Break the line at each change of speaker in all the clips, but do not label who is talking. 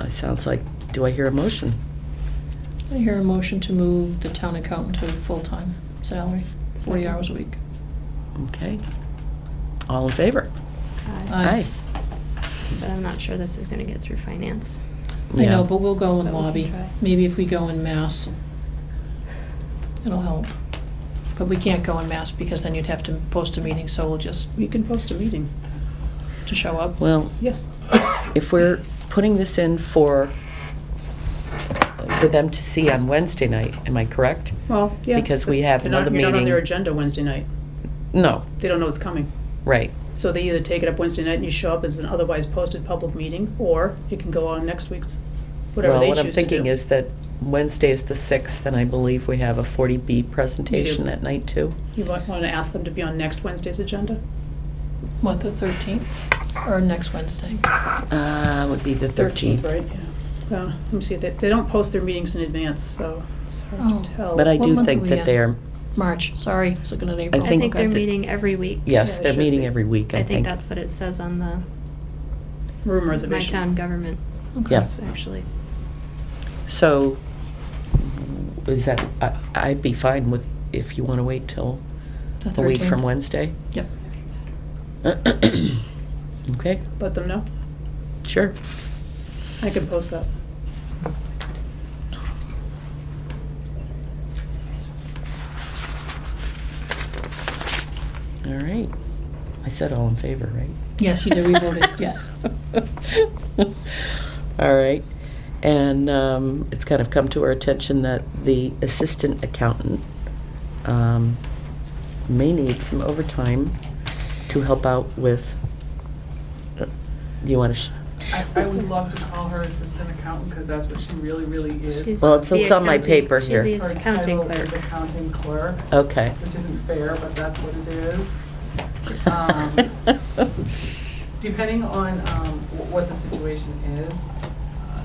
It sounds like, do I hear a motion?
I hear a motion to move the town accountant to full-time salary, 40
Second.
hours a week.
Okay. All in favor?
Aye.
Aye.
Uh, But I'm not sure this is gonna get through finance.
I know,
Yeah.
but we'll go
But we
in
can
lobby.
try.
Maybe if we go in mass, it'll help. But we can't go in mass because then you'd have to post a meeting, so we'll just,
You can post a meeting,
to show up.
Well,
yes.
if we're putting this in for, for them to see on Wednesday night, am I correct?
Well, yeah.
Because
but
we have
they're not-
another
You're not on their
meeting.
agenda Wednesday night.
No,
They don't know it's coming.
right.
So they either take it up Wednesday night and you show up as an otherwise posted public meeting, or it can go on next week's, whatever
Well,
they choose
what
to do.
I'm thinking is that Wednesday is the 6th, and I believe we have a 40B presentation that night, too.
You want to ask them to be on next Wednesday's agenda?
What, the 13th? Or next Wednesday?
Uh, would be the 13th.
Right, yeah. Well, let me see, they, they don't post their meetings in advance, so it's
Oh.
hard to tell.
But I
What
do
month are
think
we
that
in?
they're,
March, sorry, it's looking at April.
I
think
think they're
that-
meeting every week.
yes,
Yeah, it
they're
should
meeting
be.
every week, I
I think
think.
that's what it says on the
Room
My
reservation.
Town Government,
Okay.
yeah.
actually.
So, is that, I- I'd be fine with, if you want to wait till
The
a week
13th.
from Wednesday.
Yep.
Okay,
Let them know.
sure.
I can post that.
All right. I said all in favor, right?
Yes, you did, we voted, yes.
All right. And um, it's kind of come to our attention that the assistant accountant um, may need some overtime to help out with, uh, you want to,
I, I would love to call her assistant accountant, because that's what she really, really is.
She's
Well, it's-
the
it's on my
accounting-
paper here.
She's the accounting
Her title is
clerk.
accounting clerk,
okay.
which isn't fair, but that's what it is. Um, Depending on um, wh- what the situation is, uh,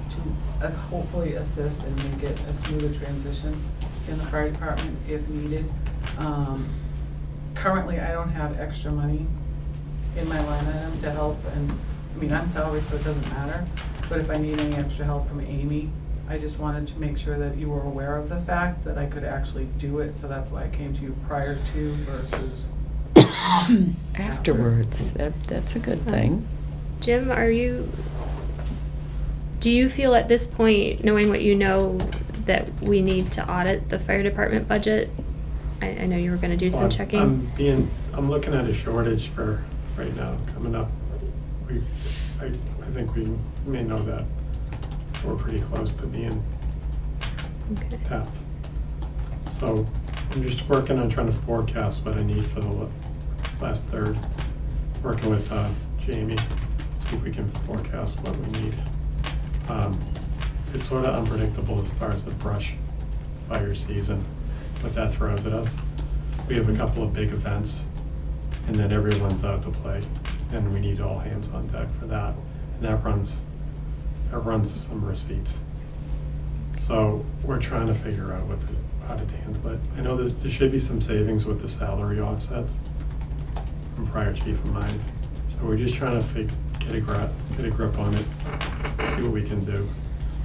to uh, hopefully assist and make it a smoother transition in the fire department if needed. Um, Currently, I don't have extra money in my line item to help, and, I mean, I'm salaried, so it doesn't matter. But if I need any extra help from Amy, I just wanted to make sure that you were aware of the fact that I could actually do it, so that's why I came to you prior to versus
Afterwards, that, that's a good thing.
Jim, are you, do you feel at this point, knowing what you know, that we need to audit the fire department budget? I, I know you were gonna do some
I'm-
checking.
I'm being, I'm looking at a shortage for, right now, coming up. We, I, I think we may know that we're pretty close to being
Okay.
tapped. So I'm just working on trying to forecast what I need for the la- last third. Working with uh, Jamie, see if we can forecast what we need. Um, It's sort of unpredictable as far as the brush fire season, what that throws at us. We have a couple of big events, and then everyone's out to play, and we need all hands on deck for that. And that runs, that runs some receipts. So we're trying to figure out what, the- how to handle it. I know that there should be some savings with the salary offsets from prior chief of mine. So we're just trying to fig, get a grip, get a grip on it, see what we can do.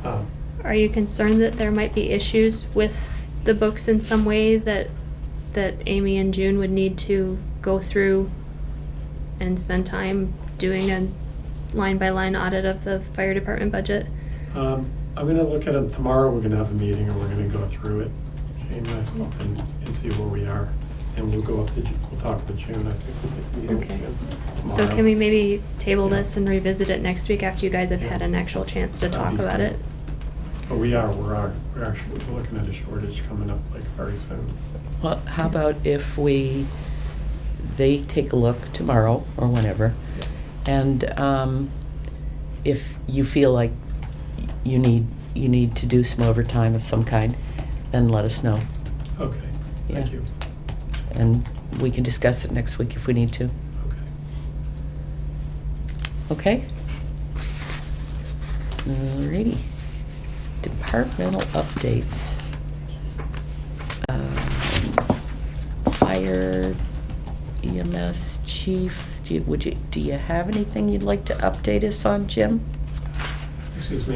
Um,
Are you concerned that there might be issues with the books in some way that, that Amy and June would need to go through and spend time doing a line-by-line audit of the fire department budget?
Um, I'm gonna look at it tomorrow, we're gonna have a meeting and we're gonna go through it, Jane, myself, and, and see where we are. And we'll go up to, Ju- we'll talk with June, I think we'll make a meeting with
Okay.
June tomorrow.
So can we maybe table
Yeah.
this and revisit it next week after you guys have had an actual chance to talk
That'd be
about
great.
it?
But Oh, we are, we're, are- we're actually looking at a shortage coming up like very soon.
Well, how about if we, they take a look tomorrow or whenever, and um, if you feel like you need, you need to do some overtime of some kind, then let us know.
Okay,
Yeah.
thank you.
And we can discuss it next week if we need to.
Okay.
Okay? Alrighty. Departmental updates. Um, Fire, EMS, chief, do you, would you, do you have anything you'd like to update us on, Jim?
Excuse me,